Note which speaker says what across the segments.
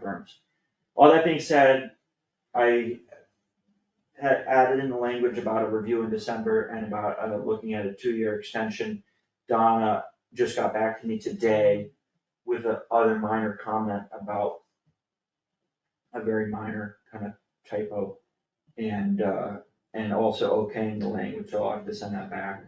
Speaker 1: firms. All that being said, I had added in the language about a review in December and about uh, looking at a two-year extension. Donna just got back to me today with a other minor comment about a very minor kind of typo and, uh, and also okaying the language, so I'll have to send that back.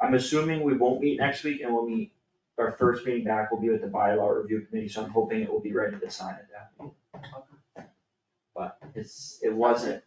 Speaker 1: I'm assuming we won't meet next week and we'll meet, our first meeting back will be with the bylaw review committee, so I'm hoping it will be ready to sign at that. meeting. But it's, it wasn't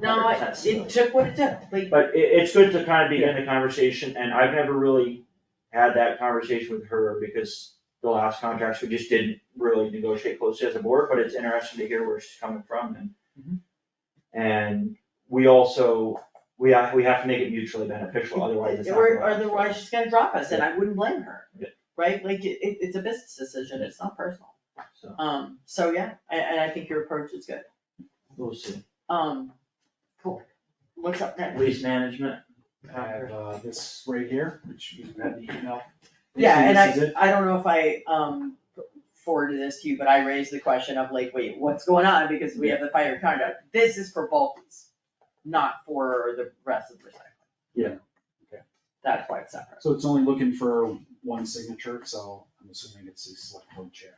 Speaker 2: No, it, it took what it took, like,
Speaker 1: but it, it's good to kind of begin the conversation, and I've never really had that conversation with her, because the last contracts, we just didn't really negotiate closely as a board, but it's interesting to hear where she's coming from, and
Speaker 2: Mm-hmm.
Speaker 1: and we also, we have, we have to make it mutually beneficial, otherwise it's not.
Speaker 2: or otherwise she's gonna drop us and I wouldn't blame her.
Speaker 1: Yeah.
Speaker 2: Right? Like, it, it- it's a business decision, it's not personal.
Speaker 1: So,
Speaker 2: Um, so yeah, and, and I think your approach is good.
Speaker 1: we'll see,
Speaker 2: Um, cool. What's up next?
Speaker 1: lease management,
Speaker 3: I have, uh, this right here, which you had the email.
Speaker 2: Yeah, and
Speaker 3: This is
Speaker 2: I,
Speaker 3: it.
Speaker 2: I don't know if I, um, forwarded this to you, but I raised the question of like, wait, what's going on? Because we have the fire conduct. This is for Baltis, not for the rest of the recycling.
Speaker 3: Yeah, okay.
Speaker 2: That's why it's separate.
Speaker 3: So it's only looking for one signature, so I'm assuming it's the select board chair.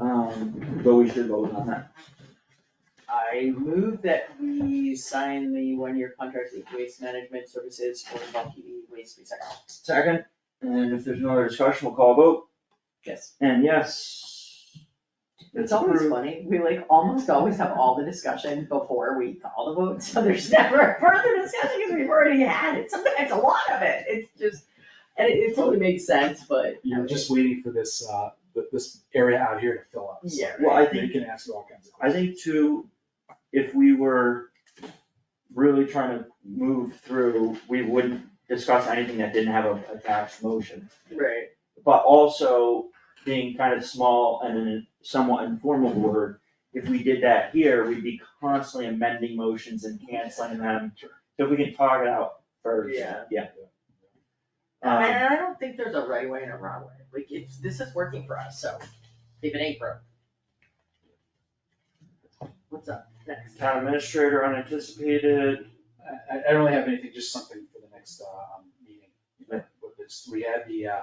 Speaker 1: um, but we should vote on that.
Speaker 2: I move that we sign the one-year contract with Waste Management Services for Balti Waste Recycling.
Speaker 1: Second, and if there's no other discussion, we'll call a vote,
Speaker 2: Yes.
Speaker 1: and yes.
Speaker 2: It's always
Speaker 1: approved.
Speaker 2: funny, we like almost always have all the discussion before we call the vote, so there's never further discussion because we've already had it, sometimes a lot of it, it's just, and it, it totally makes sense, but.
Speaker 3: You're just waiting for this, uh, th- this area out here to fill up. so
Speaker 2: Yeah,
Speaker 1: Well, I
Speaker 3: They
Speaker 1: think-
Speaker 3: can ask you all kinds of
Speaker 1: I
Speaker 3: questions.
Speaker 1: think too, if we were really trying to move through, we wouldn't discuss anything that didn't have a attached motion.
Speaker 2: Right.
Speaker 1: But also being kind of small and in a somewhat informal board, if we did that here, we'd be constantly amending motions and canceling them. So if we can talk it out first,
Speaker 2: Yeah.
Speaker 1: yeah. Um,
Speaker 2: And I don't think there's a right way and a wrong way, like, it's, this is working for us, so, if it ain't broke. What's up next?
Speaker 1: town administrator unanticipated,
Speaker 3: I, I I don't really have anything, just something for the next, uh, um, meeting.
Speaker 1: Yeah.
Speaker 3: But this, we had the, uh,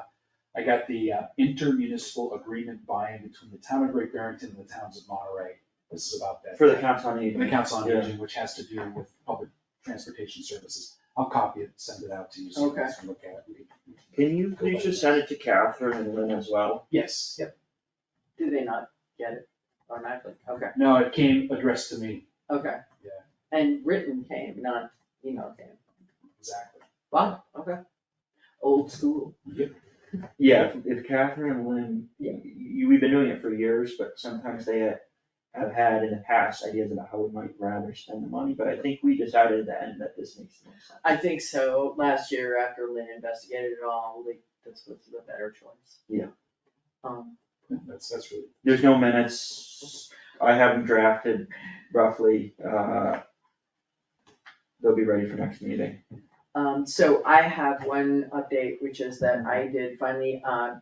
Speaker 3: I got the uh, intermunicipal agreement buy-in between the town of Great Barrington and the towns of Monterey. This is about that.
Speaker 1: for the council on aging.
Speaker 3: the Council on
Speaker 1: Yeah.
Speaker 3: Aging, which has to do with public transportation services. I'll copy it, send it out to you so you guys can look at it.
Speaker 1: Can you please just send it to Catherine and Lynn as well?
Speaker 3: Yes, yep.
Speaker 2: Do they not get it automatically? Okay,
Speaker 3: No, it came addressed to me,
Speaker 2: okay. Yeah. And written came, not email came.
Speaker 3: exactly.
Speaker 2: Wow, okay. Old school.
Speaker 1: Yeah, if- if Catherine and Lynn,
Speaker 2: Yeah.
Speaker 1: you, we've been doing it for years, but sometimes they ha- have had in the past ideas about how we might rather spend the money, but I think we decided at the end that this makes the most sense.
Speaker 2: I think so. Last year after Lynn investigated it all, like this was the better choice.
Speaker 1: Yeah.
Speaker 2: Um,
Speaker 3: That's, that's really,
Speaker 1: There's no minutes, I have them drafted roughly, uh, they'll be ready for next meeting.
Speaker 2: um, so I have one update, which is that I did finally, uh,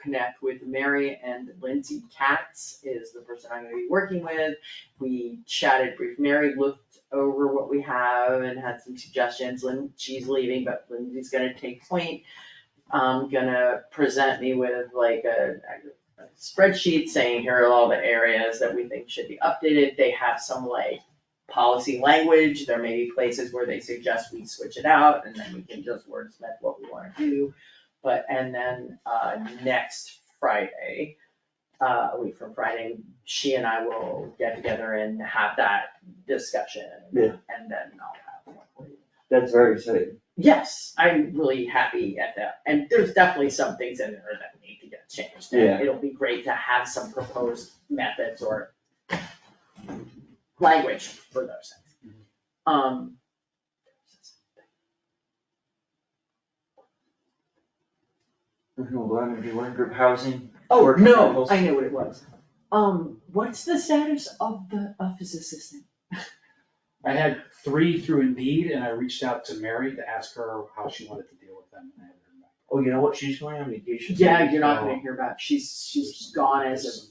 Speaker 2: connect with Mary and Lindsay Katz is the person I'm gonna be working with. We chatted brief, Mary looked over what we have and had some suggestions, Lynn, she's leaving, but Lindsay's gonna take point. Um, gonna present me with like a a spreadsheet saying here are all the areas that we think should be updated, they have some like policy language, there may be places where they suggest we switch it out, and then we can just wordsmith what we wanna do. But, and then, uh, next Friday, uh, a week from Friday, she and I will get together and have that discussion.
Speaker 1: Yeah.
Speaker 2: And then I'll have one for you.
Speaker 1: That's very exciting.
Speaker 2: Yes, I'm really happy at that, and there's definitely some things in there that need to get changed. and
Speaker 1: Yeah.
Speaker 2: It'll be great to have some proposed methods or language for those things. Um.
Speaker 1: Regional Eleven, one group housing.
Speaker 2: Oh,
Speaker 1: work
Speaker 2: no,
Speaker 1: samples.
Speaker 2: I know what it was. Um, what's the status of the office assistant?
Speaker 3: I had three through Indeed and I reached out to Mary to ask her how she wanted to deal with them. and I haven't heard back.
Speaker 1: Oh, you know what, she's going on vacation.
Speaker 2: Yeah, you're not gonna hear about, she's, she's gone as of